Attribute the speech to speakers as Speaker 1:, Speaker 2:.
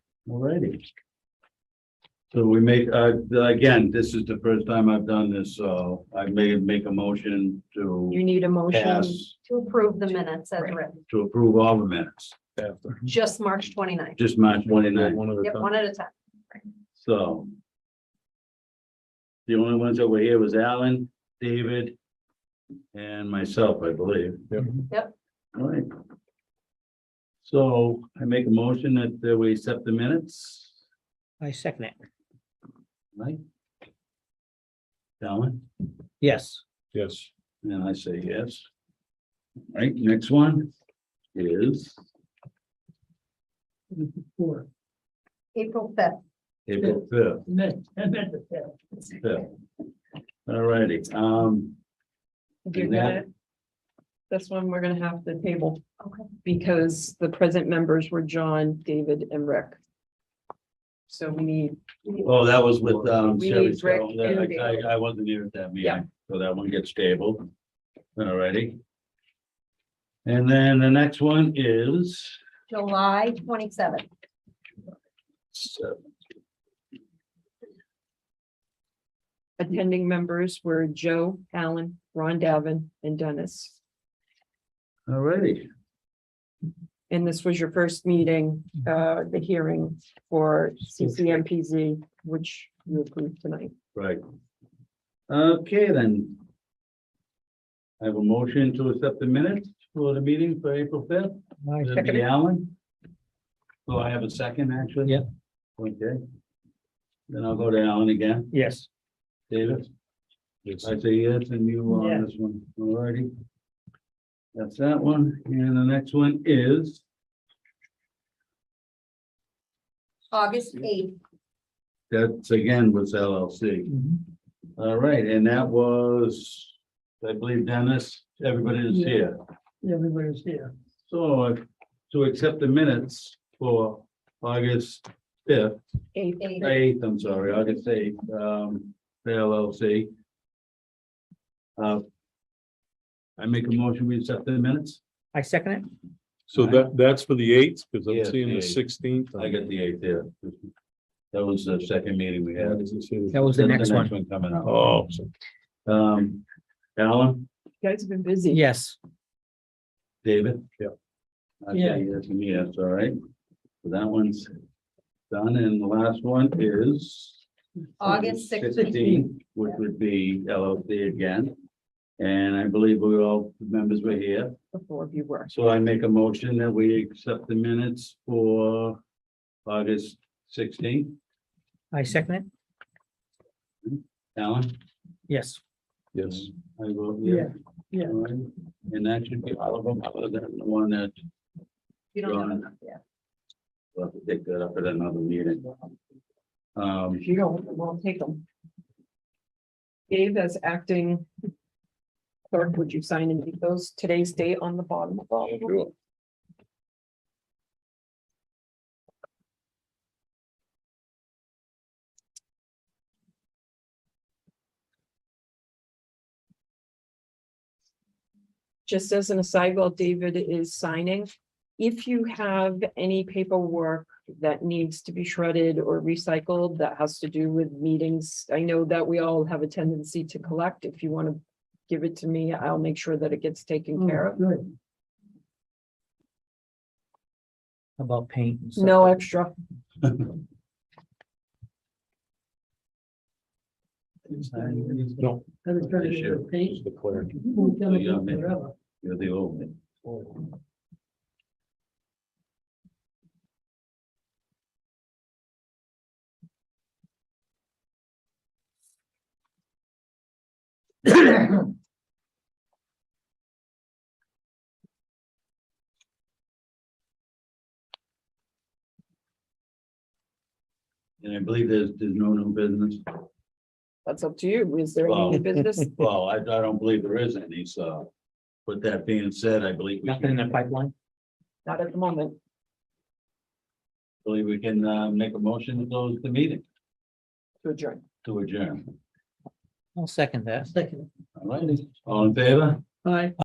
Speaker 1: Alrighty. So we make, uh, again, this is the first time I've done this, so I may make a motion
Speaker 2: You
Speaker 1: to
Speaker 2: need a motion
Speaker 1: pass,
Speaker 2: to approve the minutes as written,
Speaker 1: to approve all the minutes,
Speaker 2: just March 29th.
Speaker 1: just March twenty-nine,
Speaker 3: One at a
Speaker 2: Yep,
Speaker 3: time.
Speaker 2: one at a time.
Speaker 1: so. The only ones that were here was Alan, David, and myself, I believe.
Speaker 3: Yep.
Speaker 2: Yep.
Speaker 1: Alright. So I make a motion that uh, we accept the minutes,
Speaker 4: I second it.
Speaker 1: right? Alan?
Speaker 4: Yes,
Speaker 3: Yes,
Speaker 1: And I say yes. Right, next one is
Speaker 2: April fifth.
Speaker 1: April fifth. All righty, um,
Speaker 5: You're
Speaker 1: And that-
Speaker 5: gonna, that's one we're gonna have the table.
Speaker 2: Okay.
Speaker 5: Because the present members were John, David, and Rick. So we need,
Speaker 1: oh, that was with, um,
Speaker 5: We need
Speaker 1: Sherry, so
Speaker 5: Rick and
Speaker 1: that- I, I, I wasn't here at that
Speaker 5: Yeah.
Speaker 1: meeting, so that one gets tabled. All righty. And then the next one is
Speaker 2: July twenty-seventh.
Speaker 1: seven,
Speaker 5: attending members were Joe, Alan, Ron Davin, and Dennis.
Speaker 1: all righty,
Speaker 5: And this was your first meeting, uh, the hearing for CCMPZ, which you approved tonight.
Speaker 1: right. Okay, then. I have a motion to accept the minutes for the meeting for April fifth.
Speaker 4: I
Speaker 1: That'd
Speaker 4: second
Speaker 1: be
Speaker 4: it.
Speaker 1: Alan? So Oh, I have a second, actually?
Speaker 4: Yeah.
Speaker 1: Okay. Then I'll go to Alan again.
Speaker 4: Yes,
Speaker 1: David,
Speaker 3: yes,
Speaker 1: I say yes, and you on this one, alrighty. That's that one, and the next one is,
Speaker 2: August eighth,
Speaker 1: that's again with LLC.
Speaker 4: Mm-hmm.
Speaker 1: All right, and that was, I believe Dennis, everybody is here.
Speaker 4: Everybody's here.
Speaker 1: So uh, to accept the minutes for August fifth,
Speaker 5: Eighth,
Speaker 2: eighth,
Speaker 1: Eighth, I'm sorry, I could say, um, the LLC. Uh. I make a motion, we accept the minutes?
Speaker 4: I second it.
Speaker 3: so that, that's for the eighth, because
Speaker 1: Yeah,
Speaker 3: I'm seeing
Speaker 1: the
Speaker 3: the
Speaker 1: eighth.
Speaker 3: sixteenth.
Speaker 1: I got the eighth there. That was the second meeting we had.
Speaker 4: That was the next one.
Speaker 1: Coming up.
Speaker 3: Oh,
Speaker 1: Um, Alan,
Speaker 5: you guys have been busy.
Speaker 4: Yes,
Speaker 1: David?
Speaker 3: Yeah.
Speaker 1: I
Speaker 5: Yeah.
Speaker 1: say yes, and yes, all right. So That one's done, and the last one is.
Speaker 2: August sixteenth.
Speaker 1: 16, Which would be LLC again. And I believe we all, the members were here,
Speaker 5: The four of you were.
Speaker 1: so I make a motion that we accept the minutes for August sixteenth.
Speaker 4: I second it.
Speaker 1: Alan?
Speaker 4: Yes.
Speaker 3: yes,
Speaker 1: I vote
Speaker 4: Yeah,
Speaker 1: yeah.
Speaker 4: yeah.
Speaker 1: All right. And that should be all of them, other than the one that
Speaker 2: You don't have
Speaker 1: John.
Speaker 2: enough, yeah.
Speaker 1: we'll have to pick that up at another meeting. Um,
Speaker 5: If you don't, we'll take them. Dave, as acting clerk, would you sign and leave those today's date on the bottom of all? of them? Just as an aside, while David is signing, if you have any paperwork that needs to be shredded or recycled that has to do with meetings, I know that we all have a tendency to collect. If you want to give it to me, I'll make sure that it gets taken care of.
Speaker 4: About paint. and stuff.
Speaker 5: No extra.
Speaker 3: no.
Speaker 1: Issue.
Speaker 3: it's the clerk.
Speaker 1: So You're the- uh, you're the old man. And I believe there's, there's no new business.
Speaker 5: That's up to you. Is there any
Speaker 1: Wow.
Speaker 5: new business?
Speaker 1: Well, I, I don't believe there is any, so. With that being said, I believe. we
Speaker 4: Nothing in the
Speaker 1: can-
Speaker 4: pipeline.
Speaker 5: Not at the moment.
Speaker 1: Believe we can, uh, make a motion to close the meeting
Speaker 5: To adjourn.
Speaker 1: to adjourn.
Speaker 4: I'll second that. Second.
Speaker 1: All right, all in favor?
Speaker 4: Bye.